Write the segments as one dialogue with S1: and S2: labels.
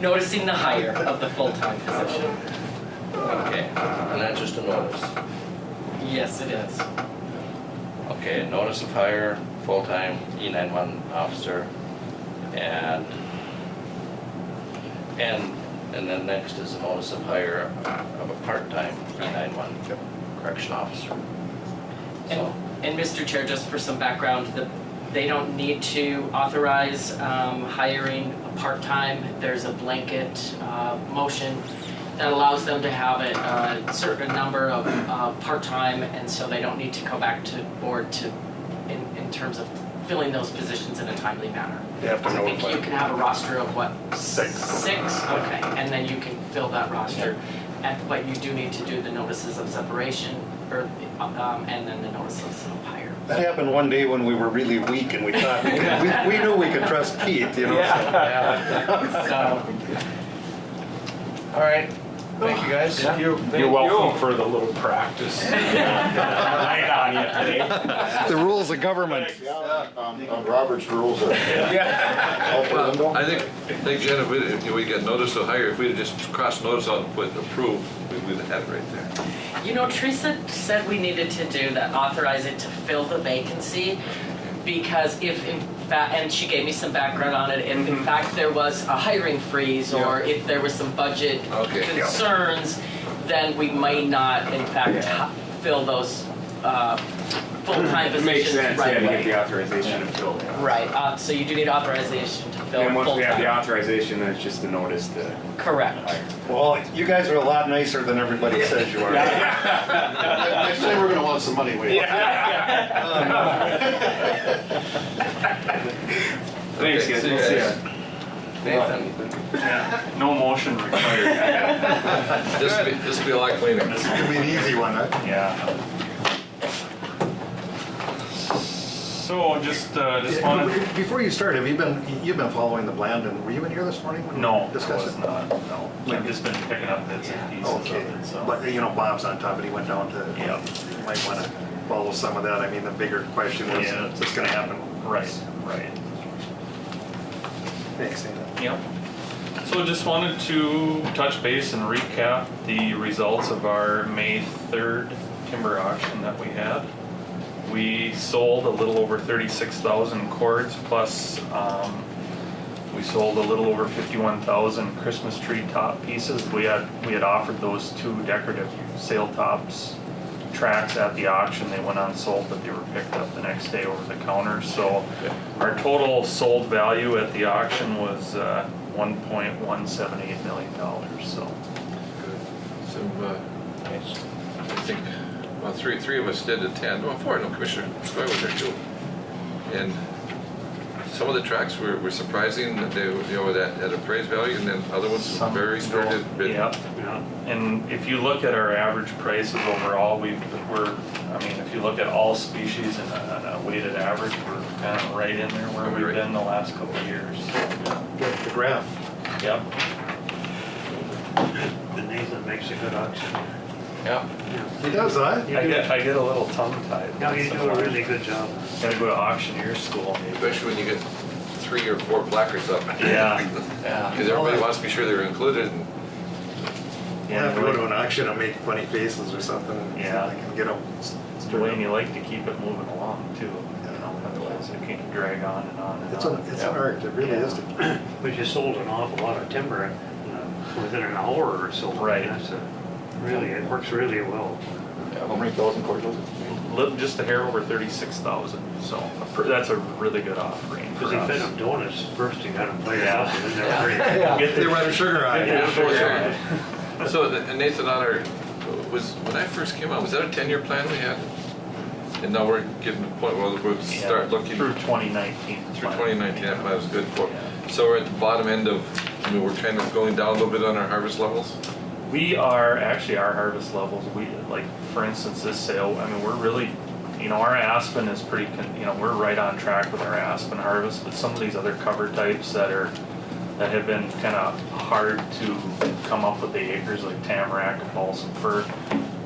S1: Noticing the hire of the full-time position.
S2: Okay, and that's just a notice.
S1: Yes, it is.
S2: Okay, notice of hire, full-time E nine-one officer, and, and, and then next is a notice of hire of a part-time E nine-one correction officer. So,
S1: And, and Mr. Chair, just for some background, the, they don't need to authorize, um, hiring a part-time. There's a blanket, uh, motion that allows them to have a, a certain number of, uh, part-time, and so they don't need to come back to board to, in, in terms of filling those positions in a timely manner.
S3: They have to
S1: I think you
S3: notify.
S1: can have a roster of what?
S3: Six.
S1: Six, okay, and then you can fill that roster. And, but you do need to do the notices of separation, or, um, and then the notices of hire.
S3: That happened one day when we were really weak and we thought, we, we knew we could trust Pete, you know? so-
S2: yeah,
S1: So,
S2: all right, thank you guys.
S4: Thank you.
S5: You're welcome for the little practice. Right on you today.
S3: The rules of government.
S6: Um, um, Robert's rules are out the window.
S4: I think, I think Jen, if we, if we got notice to hire, if we'd just crossed notice out and put approved, we would have had it right there.
S1: you know, Teresa said we needed to do that, authorize it to fill the vacancy, because if in fact, and she gave me some background on it, if
S5: Mm-hmm.
S1: in fact there was a hiring freeze, or if there was some budget
S4: Okay. Yeah.
S1: concerns, then we might not in fact ha- fill those, uh, full-time
S5: It
S1: positions right away.
S5: makes sense, yeah, to get the authorization to fill.
S1: Right, uh, so you do need authorization to fill
S5: And once we have the
S1: full-time.
S5: authorization, then it's just the notice to
S1: Correct.
S5: hire.
S3: Well, you guys are a lot nicer than everybody says you are.
S6: Next time, we're gonna want some money, wait.
S5: Thanks,
S4: Okay,
S5: guys.
S4: see you
S5: We'll see
S4: guys.
S5: ya.
S2: Nathan,
S5: No motion required.
S4: This would be, this would be a lot cleaner.
S6: It'll be an easy one, huh?
S7: Yeah. So just, uh, just wanted,
S3: Before you start, have you been, you've been following the Blandon, were you in here this morning when
S7: no,
S3: we
S7: it
S3: discussed
S7: was
S3: it?
S7: not, no. I've just been picking up bits and pieces of
S3: Okay,
S7: it, so.
S3: but you know, Bob's on top, and he went down to, you
S7: Yeah.
S3: might wanna follow some of that, I mean, the bigger question was,
S7: Yeah.
S3: is this gonna happen?
S7: Right, right.
S3: Thanks, Dana.
S7: Yep. So just wanted to touch base and recap the results of our May 3rd timber auction that we had. We sold a little over 36,000 cords plus um, we sold a little over 51,000 Christmas tree top pieces. We had we had offered those two decorative sail tops tracks at the auction. They went unsold, but they were picked up the next day over the counter. So our total sold value at the auction was uh, 1.178 million dollars. So
S4: So, uh, I think, well, three, three of us did attend, well, four, no, Commissioner Skoye was there too. And some of the tracks were, were surprising, that they, were, you know, that, at appraised value, and then other ones were
S7: Some
S4: very
S7: still-
S4: spirited. but-
S7: Yep, yeah. And if you look at our average prices overall, we, we're, I mean, if you look at all species and a, a weighted average, we're kind of right in there where
S4: Are we
S7: we've
S4: right?
S7: been the last couple of years.
S3: The graph.
S7: Yep.
S8: The Nathan makes a good auction.
S4: Yeah,
S3: He does, huh?
S7: I get, I get a little tongue tied.
S8: No, you do a really good job.
S7: Gotta go to auctioneer school maybe.
S4: especially when you get three or four placards up.
S7: Yeah.
S4: Yeah. Because everybody wants to be sure they're included, and
S3: We'll have to go to an auction and make funny faces or something, and see if
S7: Yeah.
S3: I can get them.
S7: It's the way you like to keep it moving along too, you know, otherwise it can drag on and on and
S3: It's an,
S7: on.
S3: it's an art, it really is.
S8: But you sold an awful lot of timber uh, within an hour or so.
S7: Right.
S8: That's a- Really, it works really well.
S6: How many thousand quarters was it?
S7: Little, just a hair over thirty-six thousand, so that's a really good offering
S8: Because
S7: for
S8: he
S7: us.
S8: fed them donuts first, he got them fired
S7: Yeah.
S8: up, and then they were great.
S7: Get
S3: They
S7: the-
S3: run sugar on
S7: Yeah,
S3: it.
S7: sure.
S4: Yeah. So, the- and Nathan Otter, was, when I first came out, was that a ten-year plan we had? And now we're getting to the point where we'll
S7: Yeah,
S4: start looking
S7: Through
S4: through
S7: twenty nineteen.
S4: twenty nineteen, that plan was good for. So we're at the bottom end of, I mean, we're kind of going down a little bit on our harvest levels.
S7: We are, actually, our harvest levels, we, like, for instance, this sale, I mean, we're really, you know, our aspen is pretty, con- you know, we're right on track with our aspen harvest, but some of these other cover types that are, that have been kind of hard to come up with the acres, like tamarack and balsam fir,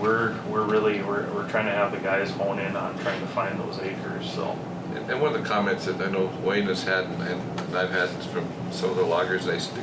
S7: we're, we're really, we're, we're trying to have the guys hone in on trying to find those acres, so.
S4: And and one of the comments that I know Wayne has had, and and I've had from some of the loggers I speak